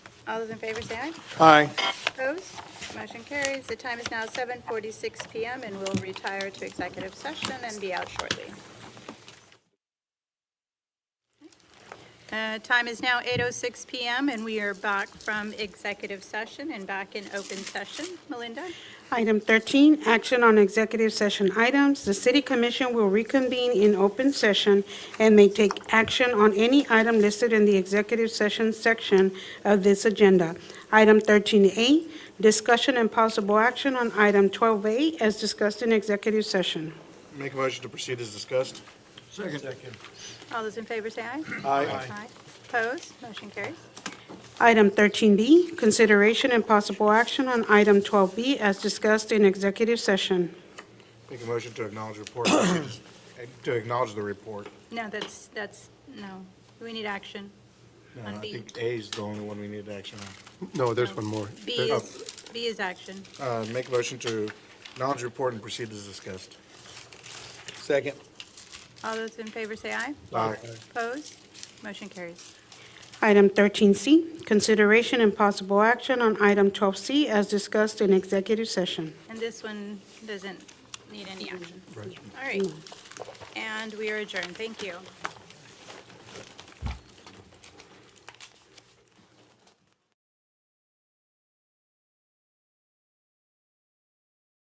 All those in favor say aye. Aye. Opposed? Motion carries. The time is now 7:46 PM, and we'll retire to executive session and be out shortly. Uh, Time is now 8:06 PM, and we are back from executive session and back in open session. Melinda? Item 13, action on executive session items. The city commission will reconvene in open session and may take action on any item listed in the executive session section of this agenda. Item 13A, discussion and possible action on item 12A as discussed in executive session. Make a motion to proceed as discussed. All those in favor say aye. Aye. Aye. Opposed? Motion carries. Item 13B, consideration and possible action on item 12B as discussed in executive session. Make a motion to acknowledge report, Uh, to acknowledge the report. No, that's, that's, no. We need action. No, On Uh, I B. think A is the only one we need action on. No, there's one more. B There- is, B is action. Uh, Make a motion to acknowledge report and proceed as discussed. Second. All those in favor say aye. Aye. Opposed? Motion carries. Item 13C, consideration and possible action on item 12C as discussed in executive session. And this one doesn't need any action. All right. And we are adjourned. Thank you.